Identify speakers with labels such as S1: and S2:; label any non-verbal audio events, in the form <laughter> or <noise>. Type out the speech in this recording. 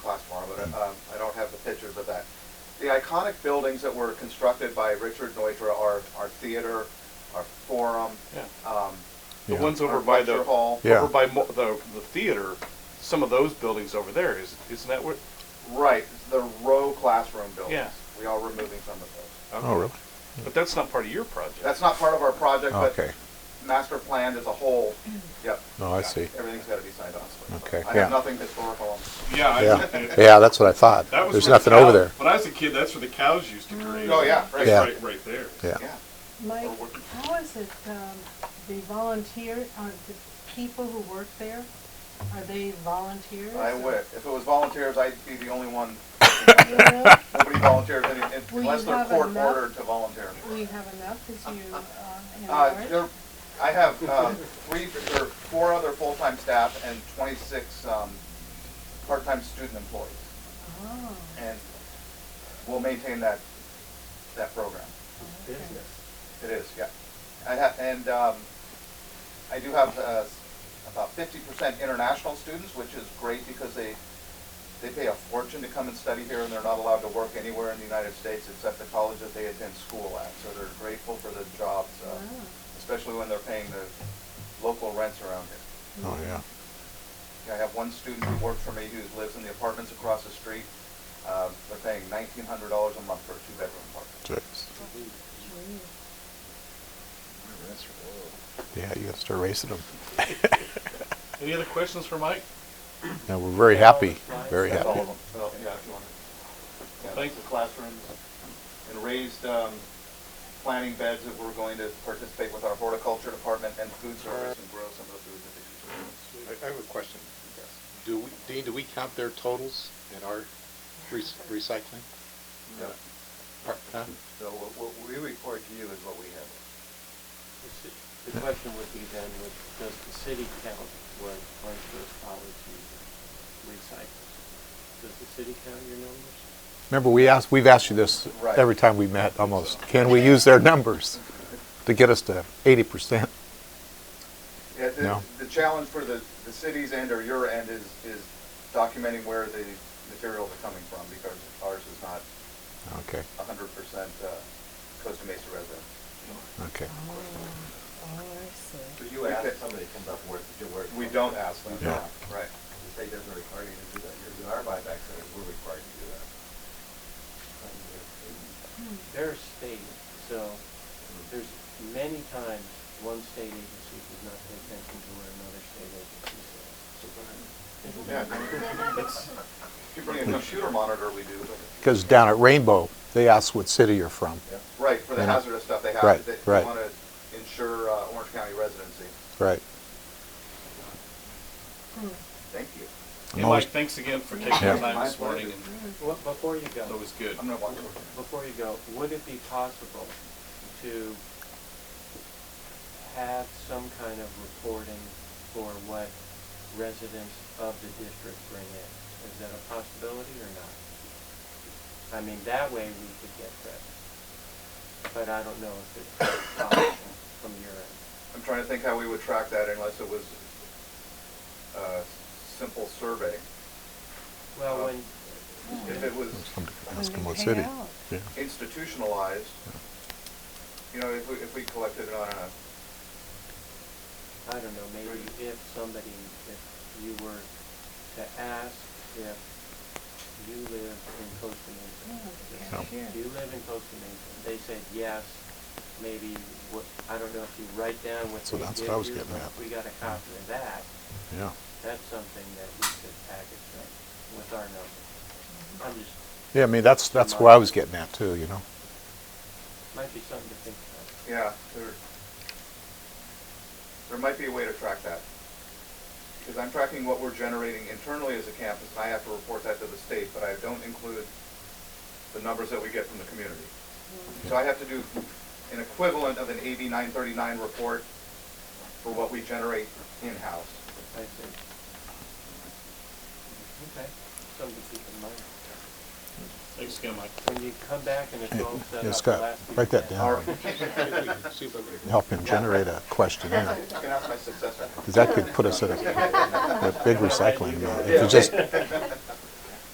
S1: Um, I don't have the pictures of that. The iconic buildings that were constructed by Richard Neutra are our theater, our forum,
S2: Yeah.
S1: um,
S2: The
S3: Yeah.
S2: ones over
S1: our
S2: by the
S1: lecture hall.
S3: Yeah.
S2: over by mo- the the theater, some of those buildings over there is isn't that what?
S1: Right, the row classroom buildings.
S2: Yeah.
S1: We are removing some of those.
S2: okay.
S3: Oh, really?
S2: But that's not part of your project.
S1: That's not part of our project, but
S3: Okay.
S1: master planned as a
S3: <clears throat>
S1: whole, yep.
S3: No, I see.
S1: Everything's gotta be signed off.
S3: Okay,
S1: I
S3: yeah.
S1: have nothing historical on this.
S4: Yeah, I,
S3: Yeah.
S4: that
S3: Yeah, that's what I thought.
S4: was
S3: There's
S4: where the
S3: nothing over
S4: cow-
S3: there.
S4: When I was a kid, that's where the cows used to graze.
S1: Oh, yeah, right.
S4: right,
S3: Yeah.
S4: right, right there.
S3: Yeah.
S1: Yeah.
S5: Mike,
S1: Or working.
S5: how is it, um, the volunteer, uh, the people who work there, are they volunteers?
S1: I
S5: or-
S1: would. If it was volunteers, I'd be the only one.
S5: You know,
S1: Nobody volunteers any-
S5: Will
S1: unless
S5: you
S1: they're
S5: have
S1: court
S5: enough?
S1: ordered to volunteer.
S5: We have enough, as you, uh,
S1: Uh,
S5: in
S1: there, I have, uh, three, or four other full-time staff and twenty-six, um, part-time student employees.
S5: Oh,
S1: And we'll maintain that, that program.
S5: okay.
S1: It is, yeah. I have, and, um, I do have, uh, about fifty percent international students, which is great because they, they pay a fortune to come and study here and they're not allowed to work anywhere in the United States except the college that they attend school at. So they're grateful for the jobs, uh,
S5: Wow.
S1: especially when they're paying the local rents around here.
S3: Oh, yeah.
S1: I have one student who works for me who lives in the apartments across the street. Uh, they're paying nineteen hundred dollars a month for a two-bedroom apartment.
S3: Jeez.
S5: Gee.
S3: Yeah, you gotta start raising <laughs> them.
S2: Any other questions for Mike?
S3: Now, we're very happy, very
S1: That's all
S3: happy.
S1: of them. Well, yeah, if you want. Yeah,
S2: Thank
S1: that's the classrooms and raised, um, planting beds that we're going to participate with our horticulture department and food service and grow some of the food that they consume.
S6: I, I have a question. Do we, Dean, do we count their totals in our rec- recycling?
S1: Yeah.
S6: Par- huh?
S1: So what, what we report to you is what we have.
S7: The question would be then, would, does the city count what Orangeburg College uses, recycles? Does the city count your numbers?
S3: Remember, we asked, we've asked you this
S1: Right.
S3: every time we met, almost. Can we use their numbers to get us to eighty percent?
S1: Yeah, the,
S3: No.
S1: the challenge for the, the cities and or your end is, is documenting where the materials are coming from because ours is not
S3: Okay,
S1: a hundred percent, uh, Costa Mesa resident.
S3: okay.
S1: Do you ask somebody comes up where to do work? We don't ask them,
S3: Yeah.
S1: no, right. The state doesn't require you to do that. You're doing our buyback centers, we're required to do that.
S7: They're state, so there's many times one state agency does not pay attention to what another state agency says.
S1: Yeah. It's, if you bring a computer monitor, we do, but,
S3: Because down at Rainbow, they asked what city you're from.
S1: right, for the
S3: Yeah.
S1: hazardous stuff, they have,
S3: Right,
S1: they
S3: right.
S1: want to ensure uh, Orange County residency.
S3: Right.
S1: Thank you.
S2: And
S3: I'm always-
S2: Mike, thanks again for taking
S3: Yeah.
S2: the time this
S1: My pleasure.
S2: morning. And
S7: Well, before you go.
S2: that was good.
S1: I'm going to walk over.
S7: Before you go, would it be possible to have some kind of reporting for what residents of the district bring in? Is that a possibility or not? I mean, that way we could get credit, but I don't know if it's possible from your end.
S1: I'm trying to think how we would track that unless it was a simple survey.
S7: Well, when,
S5: Mm.
S1: If it was
S3: Somebody could
S5: When
S3: Ask
S5: they
S3: them what
S5: hang
S3: city.
S5: out.
S3: Yeah.
S1: institutionalized, you know, if we, if we collected it on a,
S7: I don't know, maybe if somebody, if you were to ask if you live in Costa
S5: Yeah,
S7: Mesa,
S5: the
S7: Yeah.
S5: cashier.
S7: Do you live in Costa Mesa? They said yes, maybe, what, I don't know if you write down what
S3: So
S7: they
S3: that's
S7: give
S3: what I was
S7: you,
S3: getting
S7: but
S3: at.
S7: if We got a copy of that,
S3: Yeah.
S7: that's something that we could package up with our number. I'm just,
S3: Yeah, I mean, that's, that's where I was getting at too, you know?
S7: might be something to think
S1: yeah,
S7: about.
S1: there, there might be a way to track that. Because I'm tracking what we're generating internally as a campus, and I have to report that to the state, but I don't include the numbers that we get from the community. So I have to do an equivalent of an AB 939 report for what we generate in-house.
S7: I think. Okay, something to keep in mind.
S2: Thanks again,
S1: <laughs>
S2: Mike.
S7: When you come back and it's all set up.
S3: Yeah,
S7: the
S3: Scott,
S7: last few
S3: write that
S7: minutes-
S1: All
S3: down.
S1: right,
S6: See if I would-
S3: Help him generate a questionnaire.
S1: you can ask my successor.
S3: Because that could put us at a, a big recycling, uh, if you just